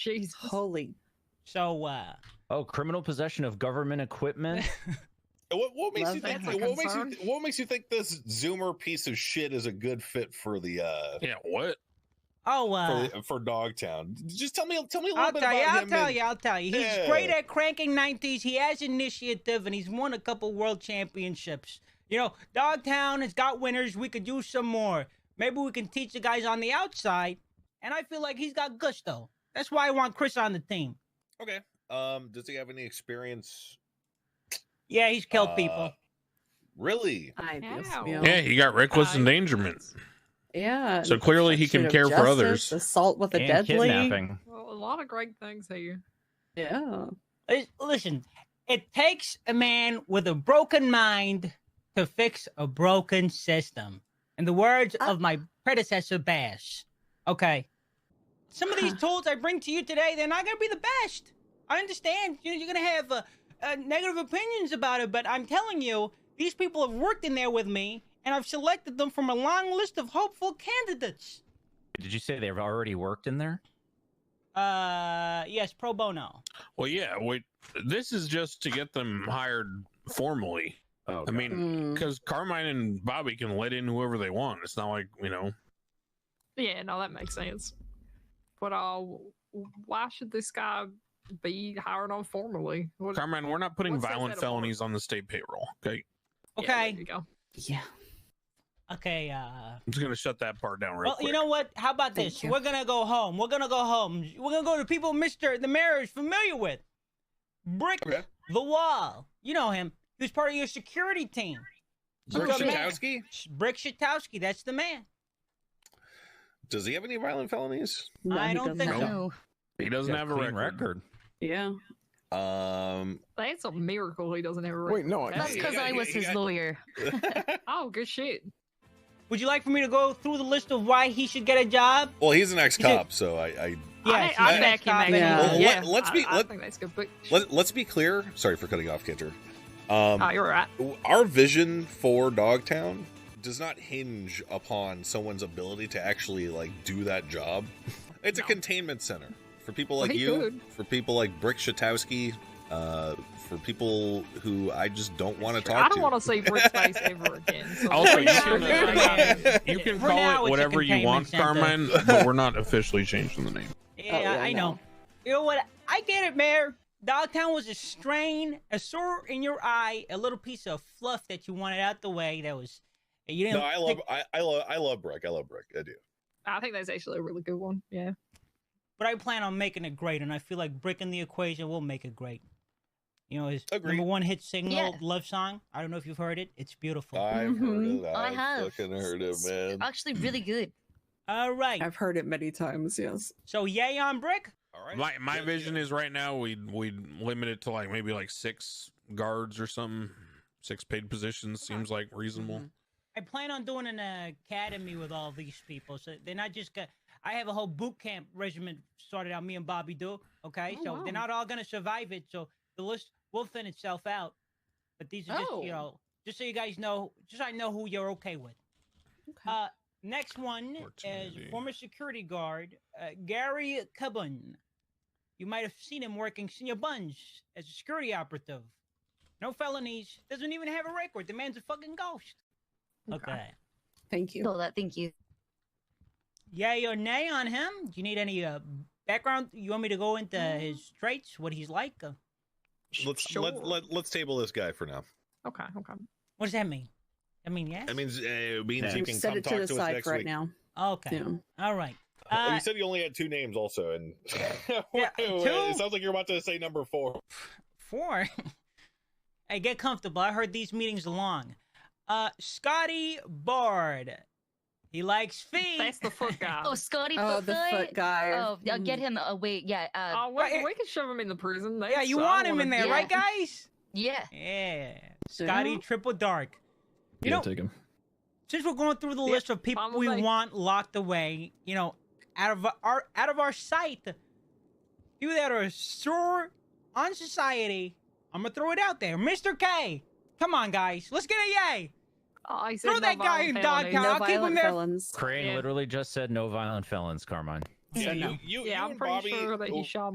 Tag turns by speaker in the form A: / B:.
A: Jesus.
B: Holy.
C: So, uh,
D: Oh, criminal possession of government equipment.
E: What, what makes
B: Love
E: you think?
B: that
E: What makes you?
B: concern.
E: th- What makes you think this Zoomer piece of shit is a good fit for the uh
F: Yeah, what?
C: oh, uh,
E: for, for Dogtown? Just tell me. Tell me a little
C: I'll
E: bit
C: tell you,
E: about
C: I'll
E: him.
C: tell
E: and-
C: you, I'll tell you. He's
E: Yeah.
C: great at cranking 90s. He has initiative and he's won a couple world championships. You know, Dogtown has got winners. We could use some more. Maybe we can teach the guys on the outside. And I feel like he's got gusto. That's why I want Chris on the team.
E: Okay. Um, does he have any experience?
C: Yeah, he's killed
E: uh,
C: people.
E: Really?
B: I
A: Ow.
F: Yeah, he got reckless
A: I-
F: endangerment.
B: Yeah.
F: So clearly he can
B: obstruction of
F: care for
B: justice,
F: others.
B: Assault with a
D: and
B: deadly.
D: kidnapping.
A: Well, a lot of great things here.
B: Yeah.
C: Lis- Uh, Listen, it takes a man with a broken mind to fix a broken system. In the words
B: Uh-
C: of my predecessor, Bash. Okay. Some of these tools I bring to you today, they're not going to be the best. I understand you know, you're going to have uh, uh, negative opinions about it, but I'm telling you, these people have worked in there with me, and I've selected them from a long list of hopeful candidates.
D: Did you say they've already worked in there?
C: Uh, yes, pro bono.
F: Well, yeah. Wait, this is just to get them hired formally.
D: Oh,
F: I mean,
B: Mm.
C: Mm-hmm.
F: because Carmine and Bobby can let in whoever they want. It's not like you know.
A: Yeah, no, that makes sense. But uh, w- why should this guy be hired on formally? What,
F: Carmine, we're not putting
A: What's that
F: violent
A: better for?
F: felonies on the state payroll. Okay,
A: Yeah,
C: Okay.
A: there you go.
B: Yeah.
C: Okay, uh,
F: I'm just gonna shut that part down real
C: well,
F: quick.
C: you know what? How about
B: Thank
C: this?
B: you.
C: We're gonna go home. We're gonna go home. We're gonna go to people Mister the Mayor is familiar with. Brick
E: Okay.
C: the wall. You know him. He was part of your security team.
E: Rick
C: He's the man.
E: Jankowski?
C: Sh- Brick Shatowski. That's the man.
E: Does he have any violent felonies?
B: No,
C: I
B: he
C: don't
B: doesn't
C: think
B: have-
F: so. he doesn't
D: Got
F: have a
D: clean
F: record.
B: Yeah.
E: Um.
A: That's a miracle he doesn't have a
G: Wait,
A: record.
G: no.
E: That's
G: I-
H: That's because I was his lawyer.
A: Oh, good shit.
C: Would you like for me to go through the list of why he should get a job?
E: well, he's an ex-cop, so I, I
A: I,
C: Yes,
A: I
C: he's
A: back
C: an
A: him.
C: ex-cop.
A: actually.
B: Yeah.
A: Yeah.
B: Well,
E: let- let's be-
A: I, I
E: let-
A: think that's good. But
E: let, let's be clear. Sorry for cutting off, Kinter. Um,
A: oh, you're right.
E: our vision for Dogtown does not hinge upon someone's ability to actually like do that job. It's a
A: No.
E: containment center for people like
A: Well, he
E: you,
A: could.
E: for people like Brick Shatowski, uh, for people who I just don't want to
A: Sure,
E: talk
A: I don't
E: to.
A: want to see Brick's face ever again. So
F: Also, you
A: Yeah,
F: can,
A: yeah,
C: uh,
A: yeah.
F: You can
C: For
F: call
C: now, it's
F: it
C: a
F: whatever you want,
C: containment
F: Carmine, but we're not officially changing the name.
C: Yeah,
B: Oh, yeah,
C: I
B: I
C: know.
B: know.
C: You know what? I get it, Mayor. Dogtown was a strain, a sore in your eye, a little piece of fluff that you wanted out the way. That was you didn't.
E: No, I
C: think-
E: love, I, I love, I love Brick. I love Brick. I do.
A: I think that's actually a really good one. Yeah.
C: but I plan on making it great, and I feel like Brick in the Equation will make it great. You know, his
E: Agreed.
C: number one hit single,
H: Yeah.
C: "Love Song." I don't know if you've heard it. It's beautiful.
E: I've heard
B: Mhm.
E: it.
H: I
E: I've
H: have.
E: fucking heard it,
H: It's
E: man.
H: Actually, really good.
C: All right.
B: I've heard it many times. Yes.
C: So yay on Brick.
E: All right.
F: My my
E: Yeah,
F: vision
E: yeah.
F: is right now we would we would limit it to like maybe like six guards or something. Six paid positions seems like reasonable.
C: Mm-hmm. I plan on doing an academy with all these people, so they're not just. Gonna, I have a whole boot camp regiment started out. Me and Bobby do. Okay,
A: Oh,
C: so
A: wow.
C: they're not all gonna survive it. So the list will thin itself out. But these are just
H: Oh.
C: you know, just so you guys know, just so I know who you're okay with.
B: Okay.
C: Uh, next one is
F: Opportunity.
C: former security guard uh, Gary Cubbon. You might have seen him working senior buns as a security operative. No felonies. Doesn't even have a record. The man's a fucking ghost. okay.
B: Thank you.
H: All that. Oh, Thank you.
C: yay or nay on him? Do you need any uh, background? You want me to go into his traits, what he's like? Uh,
E: Let's
A: Sure.
E: let, let, let's table this guy for now.
A: Okay. Okay.
C: what does that mean? I mean, yes.
E: That means uh, it means
D: Yeah.
E: you
D: You
E: can
B: Set
E: come
B: it
E: talk
B: to
E: to
B: the
E: us
B: side
E: next
B: for right
E: week.
B: now.
C: okay.
B: Yeah.
C: All right.
E: Oh,
C: Uh,
E: you said you only had two names, also, and
C: Yeah, two?
E: it sounds like you're about to say number four.
C: four. hey, get comfortable. I heard these meetings are long. Uh, Scotty Bard. He likes feet.
A: That's the foot guy.
H: Oh, Scotty
B: Oh,
H: Foot
B: the
H: Guy.
B: foot guy.
H: Oh, yeah,
B: Mm.
H: get him away. Yeah. Uh,
A: Oh, well,
C: Right,
A: we can shove him in the prison. Oh,
C: yeah,
A: that's-
C: you
A: I
C: want
A: don't
C: him in
A: wanna-
C: there,
H: Yeah.
C: right, guys?
H: yeah.
C: Yeah. Scotty
B: Yeah.
C: Triple Dark. You
G: yeah,
C: know,
G: take him.
C: since we're going through the
A: Yeah,
C: list of people
A: fine with
C: we
A: me.
C: want locked away, you know, out of our out of our sight, people that are sore on society, I'm gonna throw it out there. Mr. K, come on, guys, let's get a yay.
A: Oh, he said
C: Throw
A: no
C: that guy
A: violent
C: in dog
A: felonies.
C: Now,
B: No
C: I'll keep him
B: violent
C: there.
B: felons.
D: Crane
A: Yeah.
D: literally just said no violent felons, Carmine.
E: Yeah,
B: So no.
E: you, you,
A: Yeah,
E: you
A: I'm
E: and
A: pretty
E: Bobby
A: sure that he shot